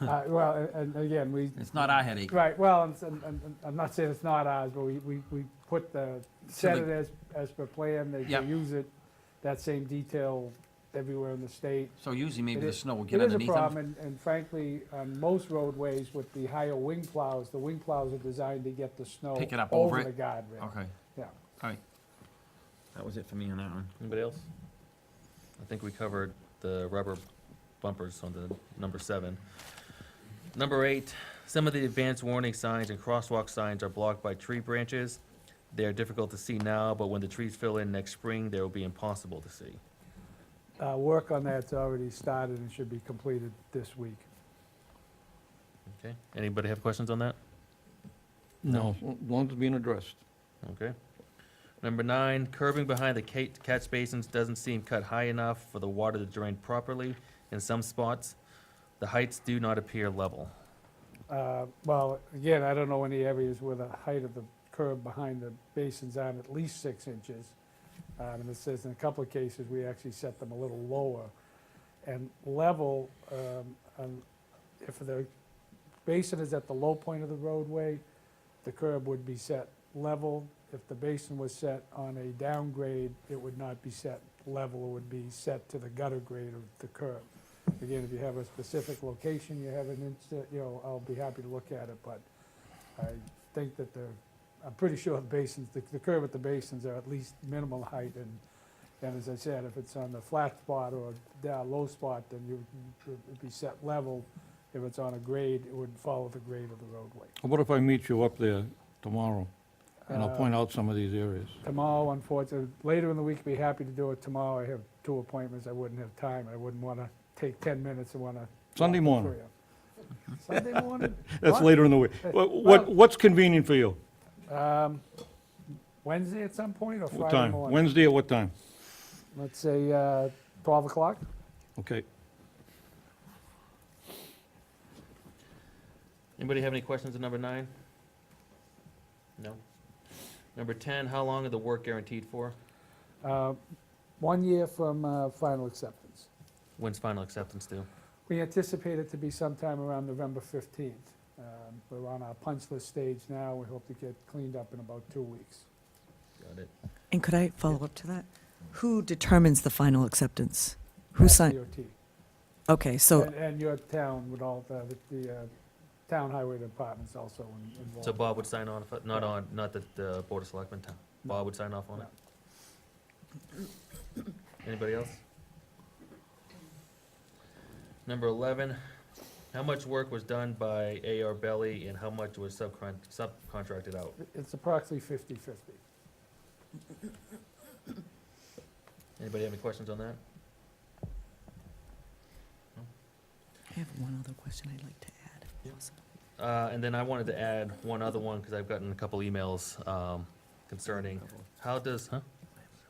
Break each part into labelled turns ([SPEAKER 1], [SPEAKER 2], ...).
[SPEAKER 1] Uh, Well, a- and again, we,
[SPEAKER 2] It's not our headache.
[SPEAKER 1] right, well, and- and- and I'm not saying it's not ours, but we, we we put the, set
[SPEAKER 2] the-
[SPEAKER 1] it as, as per plan, they
[SPEAKER 2] Yeah.
[SPEAKER 1] they use it, that same detail everywhere in the state.
[SPEAKER 2] So usually maybe
[SPEAKER 1] It
[SPEAKER 2] the
[SPEAKER 1] is-
[SPEAKER 2] snow will
[SPEAKER 1] It
[SPEAKER 2] get
[SPEAKER 1] is a
[SPEAKER 2] underneath
[SPEAKER 1] problem,
[SPEAKER 2] them.
[SPEAKER 1] and- and frankly, on most roadways with the higher wing plows, the wing plows are designed to get the snow
[SPEAKER 2] Pick it up over
[SPEAKER 1] over
[SPEAKER 2] it.
[SPEAKER 1] the guardrail.
[SPEAKER 2] Okay,
[SPEAKER 1] Yeah,
[SPEAKER 2] all right. That was it for me on that one.
[SPEAKER 3] Anybody else? I think we covered the rubber bumpers on the number seven. Number eight, some of the advanced warning signs and crosswalk signs are blocked by tree branches. They are difficult to see now, but when the trees fill in next spring, they will be impossible to see.
[SPEAKER 1] Uh, work on that's already started and should be completed this week.
[SPEAKER 3] Okay, anybody have questions on that?
[SPEAKER 4] No, long as being addressed.
[SPEAKER 3] Okay. Number nine, curbing behind the ca- catch basins doesn't seem cut high enough for the water to drain properly in some spots. The heights do not appear level.
[SPEAKER 1] Uh, Well, again, I don't know any areas where the height of the curb behind the basins aren't at least six inches. Um, And it says in a couple of cases, we actually set them a little lower. And level, um, um, if the basin is at the low point of the roadway, the curb would be set level. If the basin was set on a downgrade, it would not be set level, it would be set to the gutter grade of the curb. Again, if you have a specific location, you have an instant, you know, I'll be happy to look at it, but I think that the, I'm pretty sure the basins, the- the curve at the basins are at least minimal height, and, and as I said, if it's on the flat spot or down low spot, then you, it'd be set level. If it's on a grade, it would follow the grade of the roadway.
[SPEAKER 4] What if I meet you up there tomorrow, and I'll
[SPEAKER 1] Uh,
[SPEAKER 4] point out some of these areas?
[SPEAKER 1] Tomorrow, unfortunately, later in the week, be happy to do it tomorrow, I have two appointments, I wouldn't have time, I wouldn't wanna take ten minutes and wanna.
[SPEAKER 4] Sunday morning.
[SPEAKER 1] Sunday morning?
[SPEAKER 4] That's
[SPEAKER 1] What?
[SPEAKER 4] later in the week. Wha- What,
[SPEAKER 1] well-
[SPEAKER 4] what's convenient for you?
[SPEAKER 1] Um, Wednesday at some point or
[SPEAKER 4] What
[SPEAKER 1] Friday
[SPEAKER 4] time?
[SPEAKER 1] morning?
[SPEAKER 4] Wednesday at what time?
[SPEAKER 1] Let's say uh, 12 o'clock.
[SPEAKER 4] Okay.
[SPEAKER 3] Anybody have any questions on number nine? No. Number ten, how long are the work guaranteed for?
[SPEAKER 1] Uh, One year from uh, final acceptance.
[SPEAKER 3] When's final acceptance due?
[SPEAKER 1] We anticipate it to be sometime around November 15th. Um, We're on our punch list stage now. We hope to get cleaned up in about two weeks.
[SPEAKER 3] Got it.
[SPEAKER 5] And could I follow up to that? Who determines the final acceptance? Who
[SPEAKER 1] That's
[SPEAKER 5] signed?
[SPEAKER 1] DOT.
[SPEAKER 5] Okay, so,
[SPEAKER 1] And- And your town would all, the the, uh, town highway department's also in- involved.
[SPEAKER 3] So Bob would sign on, if it- not on, not the, the Board of Selectmen, town. Bob would sign off on it? Anybody else? Number eleven, how much work was done by AR Belly and how much was subcon, subcontracted out?
[SPEAKER 1] It's approximately 50/50.
[SPEAKER 3] Anybody have any questions on that?
[SPEAKER 5] I have one other question I'd like to add.
[SPEAKER 3] Yeah. Uh, and then I wanted to add one other one, because I've gotten a couple emails, um, concerning, how does, huh?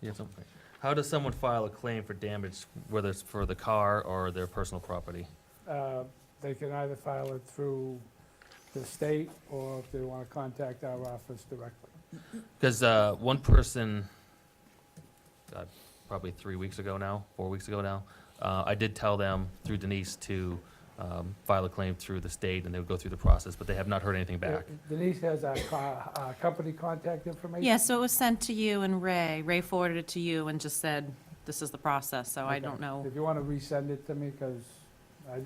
[SPEAKER 3] You have something? How does someone file a claim for damage, whether it's for the car or their personal property?
[SPEAKER 1] Uh, They can either file it through the state or if they want to contact our office directly.
[SPEAKER 3] Because, uh, one person, uh, probably three weeks ago now, four weeks ago now, uh, I did tell them through Denise to, um, file a claim through the state, and they would go through the process, but they have not heard anything back.
[SPEAKER 1] Uh, Denise has our, co- our company contact information.
[SPEAKER 6] Yeah, so it was sent to you and Ray. Ray forwarded it to you and just said, this is the process, so I
[SPEAKER 1] Okay.
[SPEAKER 6] don't know.
[SPEAKER 1] If you want to resend it to me, because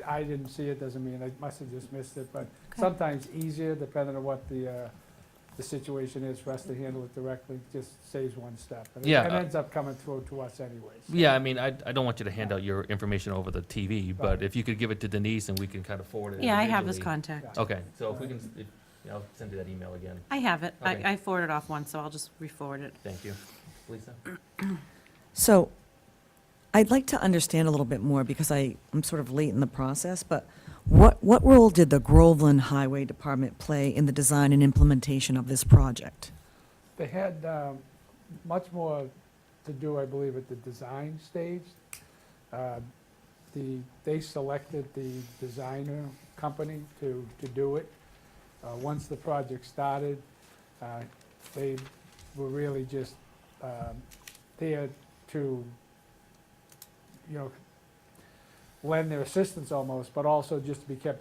[SPEAKER 1] I, I didn't see it, doesn't mean, I must have just missed it, but sometimes easier, depending on what the, uh, the situation is, for us to handle it directly, just saves one step. And it-
[SPEAKER 3] Yeah.
[SPEAKER 1] It ends up coming through to us anyways.
[SPEAKER 3] Yeah, I mean, I, I don't want you to hand out your information over the TV, but if you could give it to Denise and we can kind of forward it.
[SPEAKER 6] Yeah, I have his
[SPEAKER 3] individually.
[SPEAKER 6] contact.
[SPEAKER 3] Okay, so if we can, if, yeah, I'll send you that email again.
[SPEAKER 6] I have it.
[SPEAKER 3] Okay.
[SPEAKER 6] I I forwarded off one, so I'll just re-forward it.
[SPEAKER 3] Thank you. Lisa?
[SPEAKER 5] so I'd like to understand a little bit more because I, I'm sort of late in the process, but what, what role did the Groveland Highway Department play in the design and implementation of this project?
[SPEAKER 1] They had um, much more to do, I believe, at the design stage. Uh, The, they selected the designer company to, to do it. Uh, Once the project started, uh, they were really just um, there to, you know, lend their assistance almost, but also just to be kept